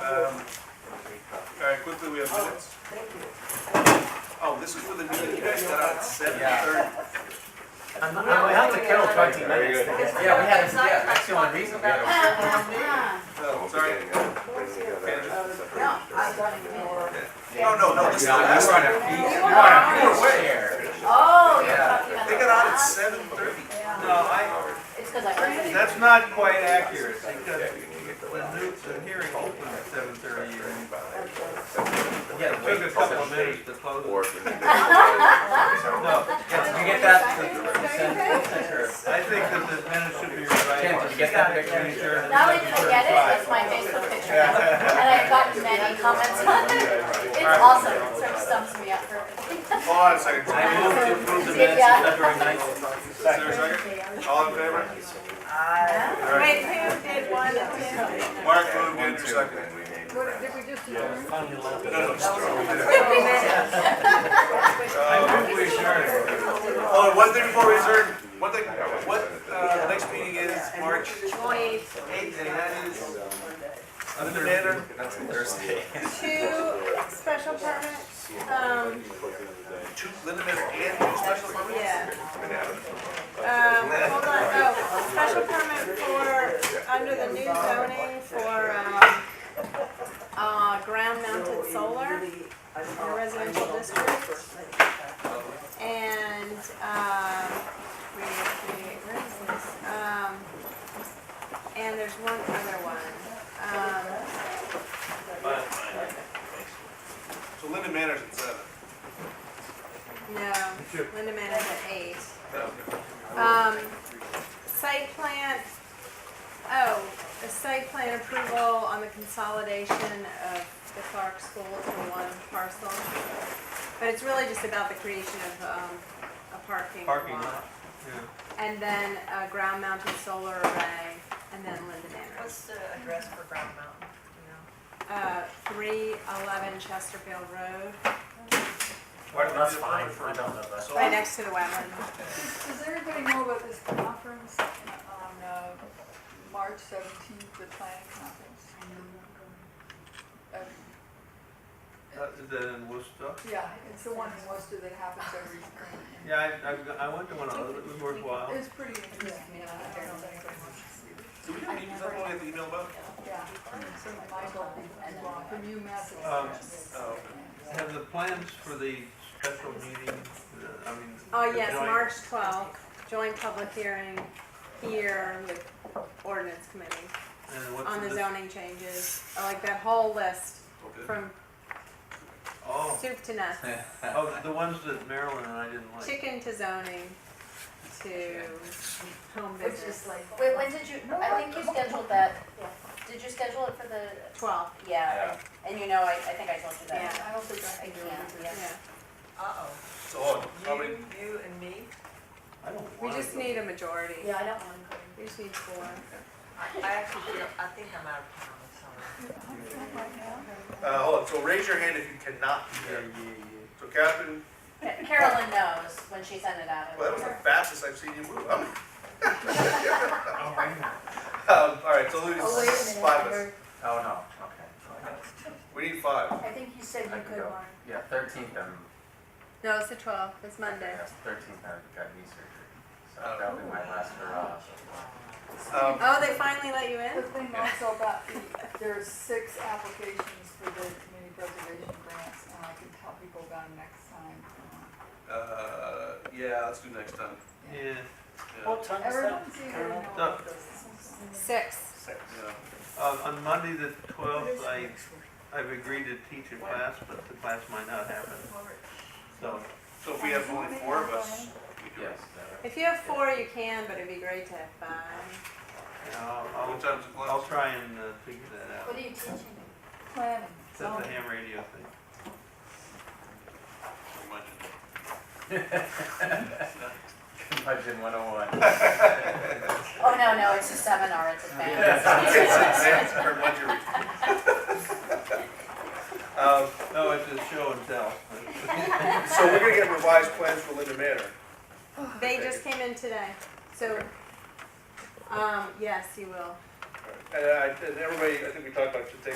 Um, Um, All right, quickly, we have minutes. Thank you. Oh, this is for the meeting you guys got out at seven thirty. I'm, I'm, I have to kill twenty Very minutes. good. Yeah, we had, a- yeah, that's the only reason we had a. Oh, sorry. No, I got it more. No, no, no, this is the last We're on one. a beach. You We're were on on a a beach beach. chair. Oh, you're Yeah. talking about. They got out at seven thirty. Yeah, No, I, it's because I heard it. that's not quite accurate, because the new, the hearing opened at seven thirty, and it took a couple of minutes to close. it. No, Did you get that? to the consent- consent or- I think that the minutes should be Tim, did you revised. get that picture? Not only did I get it, it's my Facebook picture now. And I've gotten many comments on it. It's awesome, it sort of stumps me up for everything. Hold on a second. Is I moved to approve the Yeah. minutes of February ninth. there a second? All in favor? Wait, who did one of them? Mark moved in for second. Did we just? No, no, just throw it in. I Uh, think we adjourned. Oh, and one thing before we adjourn, what the, what, uh, next meeting is March eighth, and that is under the banner. That's Thursday. Two special permits, um, Two Linda Miller and two special permits? yeah. Um, hold on, oh, special permit for, under the new zoning for, um, uh, ground mounted solar in a residential district. And, um, wait, wait, where is this? Um, and there's one other one, um. So Linda Manor's at seven. Um, No, Linda Man is at eight. Uh, Um, site plan, oh, the site plan approval on the consolidation of the Clark School to one parcel. But it's really just about the creation of, um, a parking Parking lot. lot. Yeah. And then a ground mounted solar array, and then Linda Manor. What's the address for Brown Mountain, do Uh, three eleven Chesterfield Road, Why don't we That's do it fine, for- I don't know that. right next to the wetland. Does everybody know about this conference on uh, March seventeenth, the planning conference? Um, Uh, The Woodstock. Yeah, it's the one in Worcester that happens every spring. Yeah, I, I, I went to one of those, it was worthwhile. It's pretty interesting, yeah, I don't think I want to see it. Do we have any, is that what we have to email about? Yeah, so Michael, and Ron from UMass. Um, Oh, Have the plans for the special meeting, uh, I mean. Oh, the yes, joint- March twelfth, joint public hearing here with ordinance committee and what's on the this- zoning changes, I like that whole list okay. from Oh, soup to nuts. oh, the ones that Marilyn and I didn't like. Chicken to zoning to home It's just business. like. Wait, when did you, I think you scheduled that, did you schedule it for the, Twelve, yeah, and you know, I, I think I told you that. Yeah. I don't think I I can do can't, it. yeah. yeah. Uh-oh. So, hold on, how many, You, you and me? I don't We want just to. need a majority. Yeah, I don't want to. We just need four. I I actually feel, I think I'm out of town, I'm sorry. oh, uh, hold on, so raise your hand if you cannot be Yeah, here. yeah, yeah. So Catherine, Carolyn knows when she sent it out. well, that was the fastest I've seen you move. I'm- Um, all right, so lose Oh, wait a minute, five of us. Oh, no, okay. We need five. Um, I think you said I could go. Yeah, thirteenth, I'm, No, it's the twelfth, it's Monday. yes, thirteenth, I've got knee surgery. So that'll be my last hurrah. Um, Oh, they finally let you The in? thing also about the, there are six applications for the community preservation grants, and I can tell people about them next time. uh, yeah, let's do next time. Yeah, Yeah, Oh. time Everyone's eager to know No. about this. Six. yeah. uh, on Monday the twelfth, I, I've agreed to teach a class, but the class might not happen, so. So if we have only four of us, we do it. Yes, that- If you have four, you can, but it'd be great to have five. Yeah, I'll, What time's the I'll, I'll class? try and uh, figure that out. are you teaching? Planning. It's at the ham radio thing. Remind you. Imagine one oh one. Oh, no, no, it's a seminar, it's a It's fan. advanced for what you're- Um, No, Oh, it's a show and tell. so we're gonna get revised plans for Linda Manor. They just came in today, so, um, yes, you will. And I, and everybody, I think we talked about should take